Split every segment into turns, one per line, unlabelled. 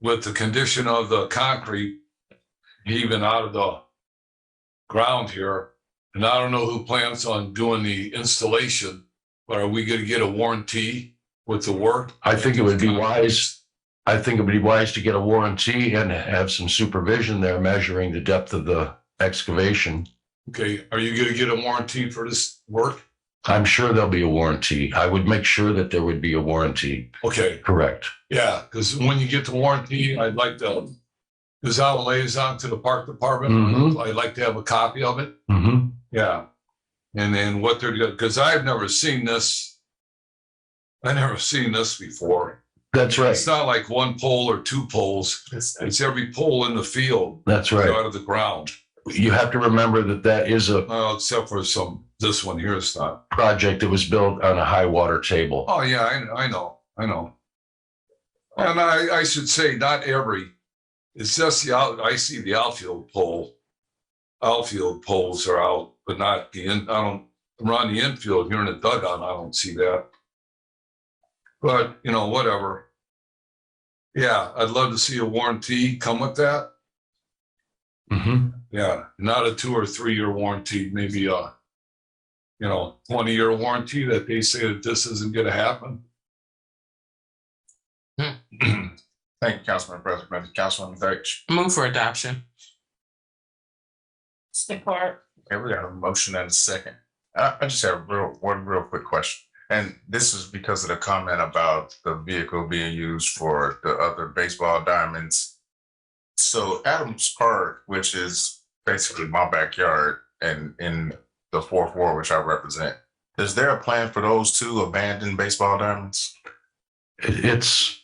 with the condition of the concrete even out of the ground here. And I don't know who plans on doing the installation, but are we gonna get a warranty with the work?
I think it would be wise, I think it would be wise to get a warranty and have some supervision there measuring the depth of the excavation.
Okay, are you gonna get a warranty for this work?
I'm sure there'll be a warranty. I would make sure that there would be a warranty.
Okay.
Correct.
Yeah, because when you get the warranty, I'd like to, because I will liaison to the park department.
Mhm.
I'd like to have a copy of it.
Mm-hmm.
Yeah. And then what they're, because I've never seen this. I never seen this before.
That's right.
It's not like one pole or two poles. It's every pole in the field
That's right.
out of the ground,
You have to remember that that is a
uh, except for some, this one here is not.
project that was built on a high water table.
Oh, yeah, I, I know, I know. And I, I should say, not every, it's just the out, I see the outfield pole. Outfield poles are out, but not the in, I don't, around the infield here in the dugout, I don't see that. But, you know, whatever. Yeah, I'd love to see a warranty come with that.
Mhm.
Yeah, not a two or three year warranty, maybe a, you know, twenty year warranty that they say that this isn't gonna happen.
Hmm. Thank you, Councilman President. Councilman Deitch.
Move for adoption.
Support.
Okay, we got a motion and a second. I, I just have real, one real quick question. And this is because of the comment about the vehicle being used for the other baseball diamonds. So Adams Park, which is basically my backyard and in the fourth ward, which I represent, is there a plan for those two abandoned baseball diamonds?
It- It's,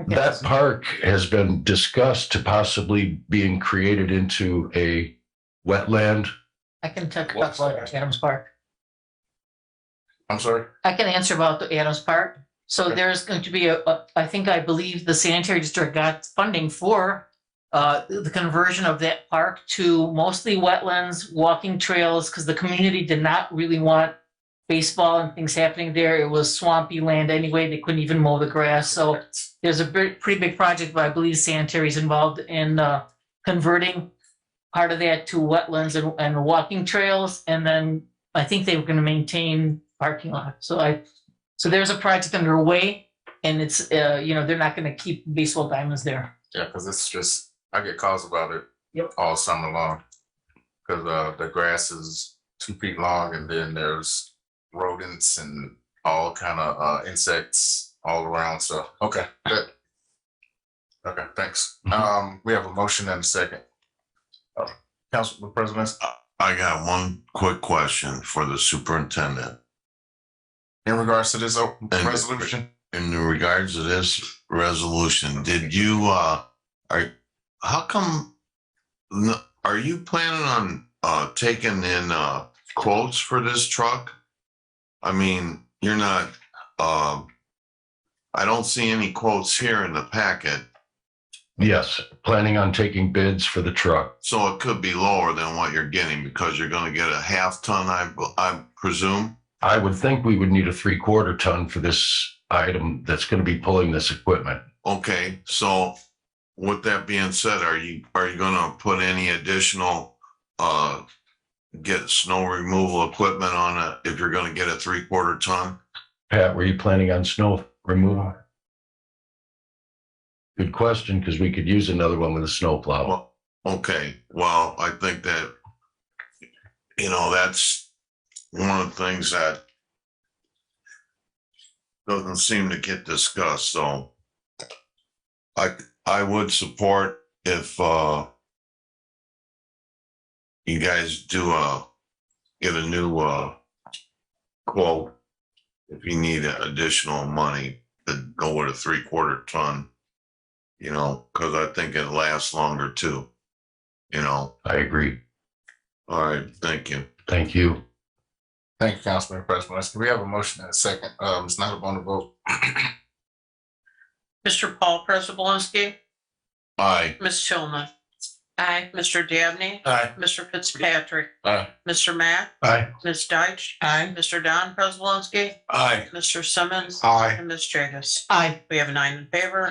Okay.
that park has been discussed to possibly being created into a wetland.
I can talk about Adams Park.
I'm sorry?
I can answer about the Adams Park. So there's going to be a, a- I think I believe the sanitary district got funding for uh, the conversion of that park to mostly wetlands, walking trails, because the community did not really want baseball and things happening there. It was swampy land anyway. They couldn't even mow the grass. So there's a bit- pretty big project, but I believe sanitary is involved in uh, converting part of that to wetlands and, and walking trails. And then I think they were going to maintain parking lot. So I, so there's a project underway and it's, uh, you know, they're not going to keep baseball diamonds there.
Yeah, because it's just, I get calls about it.
Yep.
All summer long. Because uh, the grass is two feet long and then there's rodents and all kind of uh, insects all around, so, okay, good. Okay, thanks.
Mhm.
Um, we have a motion and a second. Uh, Council President,
I got one quick question for the superintendent.
in regards to this uh, resolution,
In regards to this resolution, did you, uh, are, how come? n- Are you planning on, uh, taking in, uh, quotes for this truck? I mean, you're not, um, I don't see any quotes here in the packet,
Yes, planning on taking bids for the truck.
so it could be lower than what you're getting because you're gonna get a half ton, I, I presume.
I would think we would need a three quarter ton for this item that's going to be pulling this equipment.
Okay, so with that being said, are you, are you gonna put any additional, uh, get snow removal equipment on it if you're gonna get a three quarter ton?
Pat, were you planning on snow removal? Good question, because we could use another one with a snowplow.
Well, okay, well, I think that, you know, that's one of the things that doesn't seem to get discussed, so I, I would support if, uh, you guys do, uh, get a new, uh, quote if you need additional money to go with a three-quarter ton you know, because I think it lasts longer too. You know,
I agree.
all right, thank you.
Thank you.
thank you, Councilman President. We have a motion and a second. Um, it's not upon the vote.
Mr. Paul Prespolinski,
Aye.
Ms. Tillman. Aye. Mr. Dabney,
Aye.
Mr. Fitzpatrick,
Aye.
Mr. Matt,
Aye.
Ms. Deitch,
Aye.
Mr. Don Prespolinski,
Aye.
Mr. Simmons,
Aye.
and Ms. Jagus.
Aye.
We have nine in favor